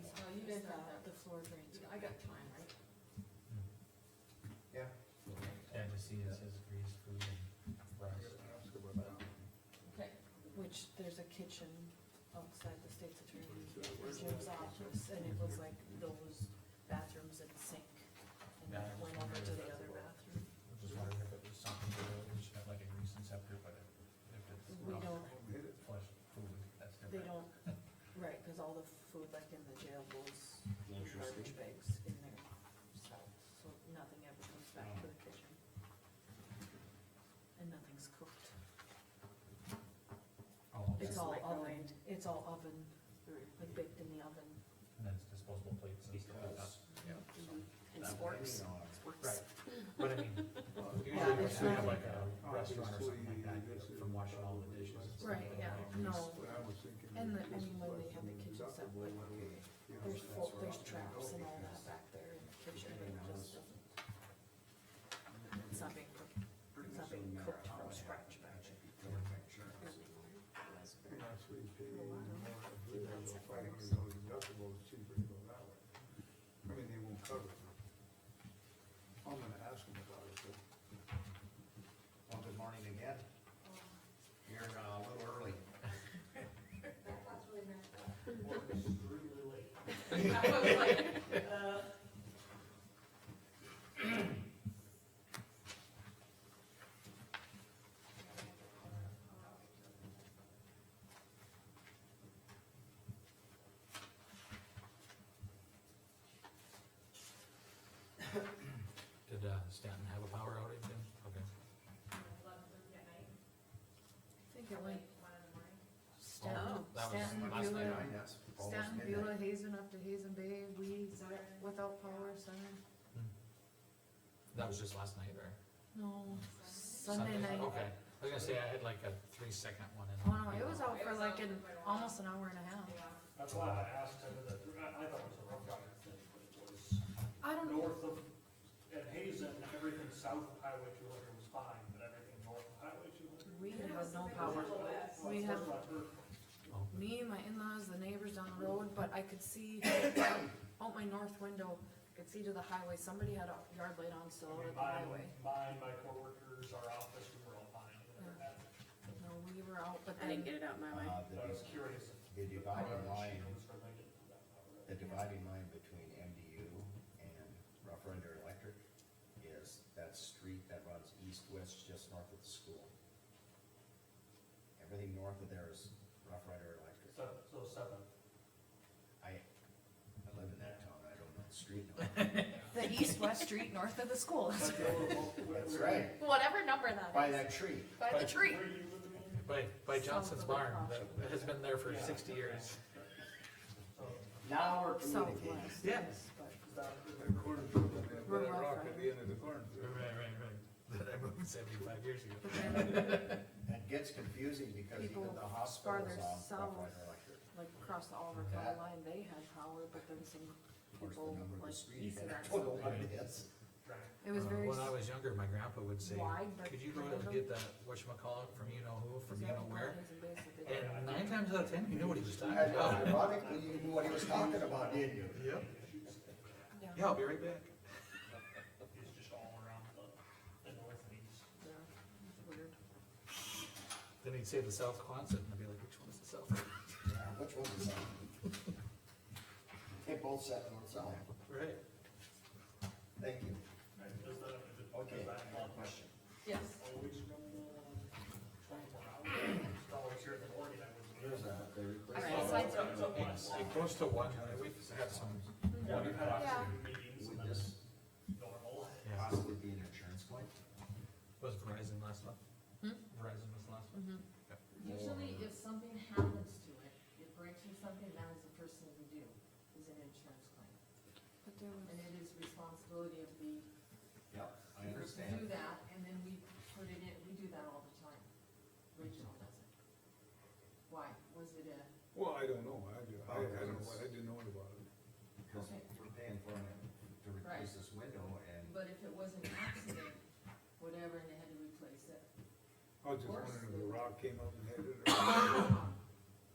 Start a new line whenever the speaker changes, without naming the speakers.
with, uh, the floor drains, I got time, right?
Yeah, to see it says grease, food and rice.
Okay. Which, there's a kitchen outside the state's attorney, Jim's office, and it was like those bathrooms and sink. And then it went over to the other bathroom.
Which is wondering if it was something to do, we should have like a grease inceptor, but if if it's
We
not
don't,
flush food, that's
they
different.
don't, right, cause all the food like in the jail goes in garbage bags in there, so, so nothing ever comes back to the kitchen. And nothing's cooked.
Oh,
It's
okay.
all oven,
microwaved.
it's all oven, like baked in the oven.
And then it's disposable plates and stuff like that.
And sporks,
Right,
sporks.
but I mean,
Yeah,
usually
it's
we have
not-
like a restaurant or something like that, you know, from washing all the dishes. and stuff
Right,
like
yeah,
that.
no,
And the, I mean, when they had the kitchen set, like,
there's full, there's traps and all that back there in the kitchen, and it just doesn't. It's not being cooked, it's not being cooked from scratch back there.
I mean, they won't cover it. I'm gonna ask them about it, but.
Well, good morning again. You're uh, a little early.
Did uh, Stanton have a power outage then? Okay.
I think it went.
Oh,
Stanton,
that was
Stanton,
Oh, Last night,
Beulah,
I guess. almost
Stanton,
midnight.
Beulah, Hazen up to Hazen Bay, we, without power, Sunday.
That was just last night, right?
No, Sunday night.
Oh.
Okay, I was gonna say, I had like a three second one in.
Oh no, it was out for like an, almost an hour and a half.
That's why I asked him, that, I, I thought it was a rough guy, thing, but it was
I don't,
north of, at Hazen, everything south of Highway two hundred was fine, but everything north of Highway two hundred.
we have no power. We have-
Oh,
me, my in-laws, the neighbors down the road, but I could see out my north window, I could see to the highway, somebody had a yard light on still out at the highway.
Mine, my coworkers, our office, we were all fine.
No, we were out, but
I
then,
didn't get it out my way.
Uh,
But I was
the-
curious. if
The dividing line,
it was related to that property.
the dividing line between MDU and Rough Rider Electric is that street that runs east-west just north of the school. Everything north of there is Rough Rider Electric.
So, so seven.
I, I live in that town, I don't know the street number.
The east-west street north of the school,
But they were both-
That's right,
whatever number that
by
is,
that tree.
by the tree.
Where you living in?
By, by Johnson's
Sounds
barn,
like
that that has been there for
Yeah.
sixty years.
So,
Now we're communicating.
southwest.
Yeah.
yes, but-
is that-
The cornfield, and then put a rock at the end of the cornfield.
right. That I moved seventy-five years ago.
But then,
It gets confusing because even
People
the hospital
farther
is on
south.
Rough Rider Electric.
like across the Oliver County line, they had power, but then some
Of course, the
people
number of the
like
street,
east of
and
that.
I don't know what
something.
it is.
Right.
It was
Uh,
very,
When I was younger, my grandpa would say,
wide, but
could you go
random.
and get that, whatchamacallit, from you know who, from you know where?
where?
And nine times out of ten, you knew what he was talking
And uh,
about.
Ironically, you knew what he was talking about, didn't you?
Yep. Yeah, I'll be right back.
It's just all around the, the north and east.
Weird.
Then he'd say the South Quonset, and I'd be like, which one is the South?
Yeah, Which one is that? They both sat north south.
Right.
Thank you.
Right, does that, does that-
Okay, one question.
Yes,
always from uh, twenty-four hours? It's always here in the morning, I was.
There's a, they
All
requested.
right, slides up.
It it goes to one, we've had some.
Yeah, we've had
Yeah.
afternoon meetings and
Would
that's
this
normal.
Yeah.
possibly be an insurance claim?
Was Verizon last month?
Hmm?
Verizon was last month?
Usually if something happens to it, it breaks or something, that is the first thing we do, is an insurance claim.
but there was.
And it is responsibility of the,
Yep, I
person
understand.
to do that, and then we put it in, we do that all the time. Rachel does it. Why? Was it a,
Well, I don't know, I, do- I, I don't know, I didn't know about it.
Because we're paying for it to replace this window and
but if it was an accident, whatever, and they had to replace it,
I was just
Of course.
wondering if the rock came up and hit it or.